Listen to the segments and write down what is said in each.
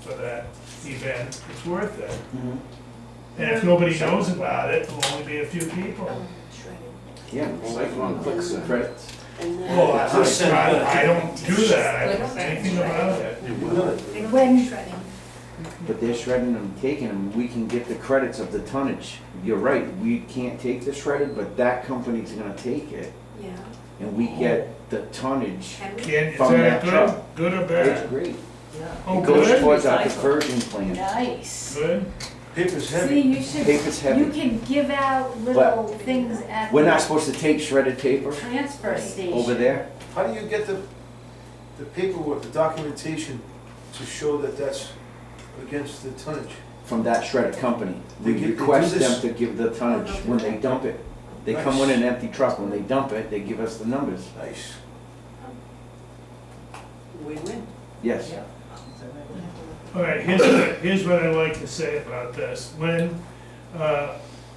for that event, it's worth it. Mhm. And if nobody knows about it, it'll only be a few people. Yeah, well, like one clicks and credits. Well, that's I, I don't do that, I don't say anything about it. When shredding. But they're shredding them, taking them, we can get the credits of the tonnage. You're right, we can't take the shredded, but that company's gonna take it, Yeah. and we get the tonnage. Can we? Can, is From that that good, truck. good or It's bad? great. Oh, It goes good, towards our diversion plan. Nice. good, Paper's See, heavy. you should, Paper's heavy. you can give out little things at We're not the supposed to take shredded paper transfer over station. there. How do you get the, the paperwork, the documentation to show that that's against the tonnage? from that shredded company. We They give- they do request them this- to give the tonnage when they dump it. They come in Nice. an empty truck, when they dump it, they give us the numbers. Nice. Win-win. Yes. Yeah. all right, here's, what- here's what I like to say about this, when, uh,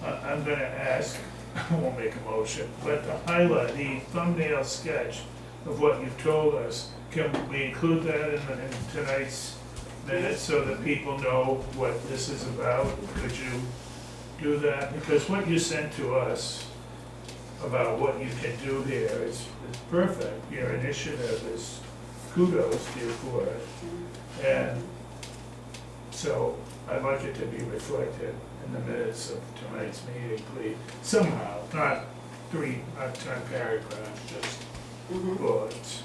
I- I'm gonna ask, I won't make a motion, but the highlight, the thumbnail sketch of what you've told us, can we include that in, the- in tonight's minutes so that people know what this is about? Could you do that? Because what you sent to us about what you can do here is, is perfect. Your initiative is kudos to you for it. And so I'd like it to be reflected in the minutes of tonight's meeting, please, somehow, not three, not ten paragraphs, just Mm-hmm. bullets.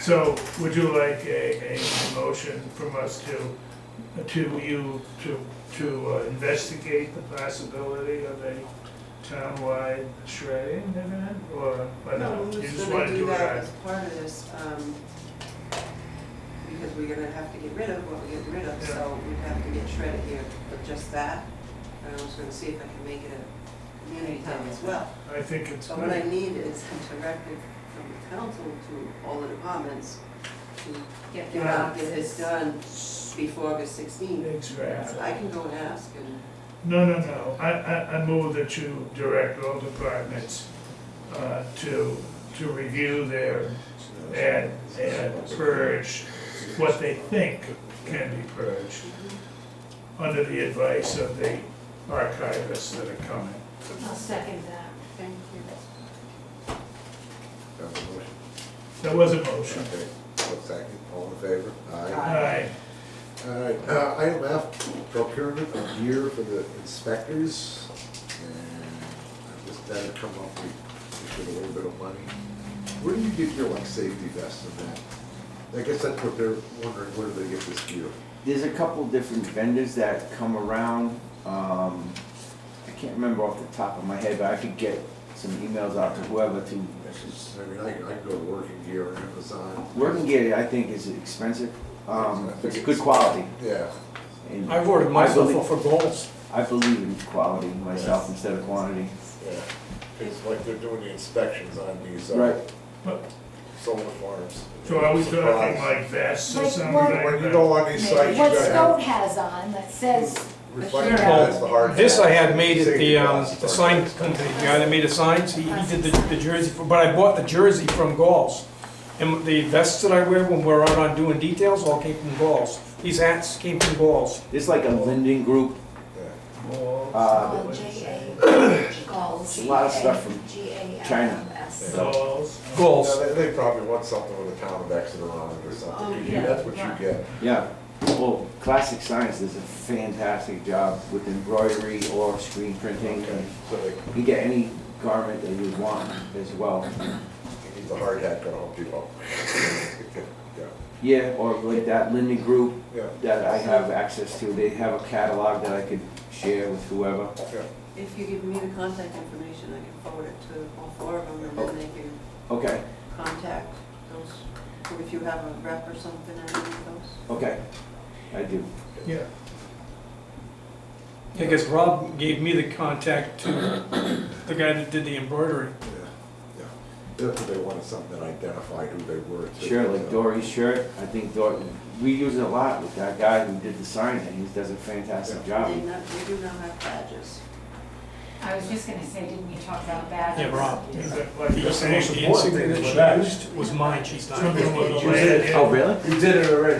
So would you like a, a motion from us to, to you, to, to uh, investigate the possibility of a townwide shredding event, or, or No, no? we You was just gonna wanna do that it as part of this, um, because we're gonna have to get rid of what we're getting rid of, Yeah. so we'd have to get shredded here for just that. And I was gonna see if I can make it a community thing as well. as- I think it's So what I good. need is a directive from the council to all the departments to Get get your out, get boxes. this done before August sixteenth. So Exactly. I can go and ask and, No, no, no, I, I, I move that you direct all departments, uh, to, to review their, and, and purge what they think can be purged, under the advice of the archivists that are coming. I'll second that. thank you. There was a motion. Okay, well, second, all in favor? Aye. Aye. All right, uh, item F, procurement of gear for the inspectors. And just that'll come up, we, we should a little bit of money. Where do you get your like safety vests and that? I guess that's what they're wondering, where do they get this gear? There's a couple different vendors that come around. Um, I can't remember off the top of my head, but I could get some emails out to whoever to. It's just, I mean, I, I can go to working gear on Amazon. Working gear, I think, is expensive. Um, it's good quality. Yeah. and I've ordered myself I off believe- for goals. I believe in quality myself instead of quantity. Yeah, it's like they're doing the inspections on these, Right. uh, But- solar farms. So are we Supplies. talking like vests or Like something what- like When you go that? on these sites, you What gotta Scott have has on that says, reflective, Sure. that's the hard. This I had made at Safety the, um, glasses the are- sign company, the guy that made the signs, he, he did the, the jersey, for- but I bought the jersey from Galls. And the vests that I wear when we're out on doing details all came from Galls. These hats came from Galls. There's like a lending group, Yeah. uh, Called J.A. Galls. A lot of stuff from China. G.A.L.L.S.. Balls. Galls. Yeah, they, they probably want something with a town of Exeter on it or something, yeah, that's what you Oh, right. get. yeah. Well, Classic Science does a fantastic job with embroidery or screen printing. Okay, so they, You can get any garment that you want as well. you need the hard hat gonna help you out. Yeah, Yeah, or like that lending group yeah, that I have access to, they have a catalog that I could share with whoever. yeah. If you give me the contact information, I can forward it to all four of them, and then they can Okay, contact those, or if you have a rep or something, I need those. okay, I do. Yeah. I guess Rob gave me the contact to the guy that did the embroidery. Yeah, yeah. That's what they wanted, something that identified who they were. too. Sure, like Yeah. Dory's shirt, I think Dory, we use it a lot with that guy who did the sign, and he does a fantastic job. They not, they do not have badges. I was just gonna say, didn't we talk about badges? Yeah, Rob. Is that like The the same? insignia that she used was mine, she's not. Something with a Oh, really? You did it already.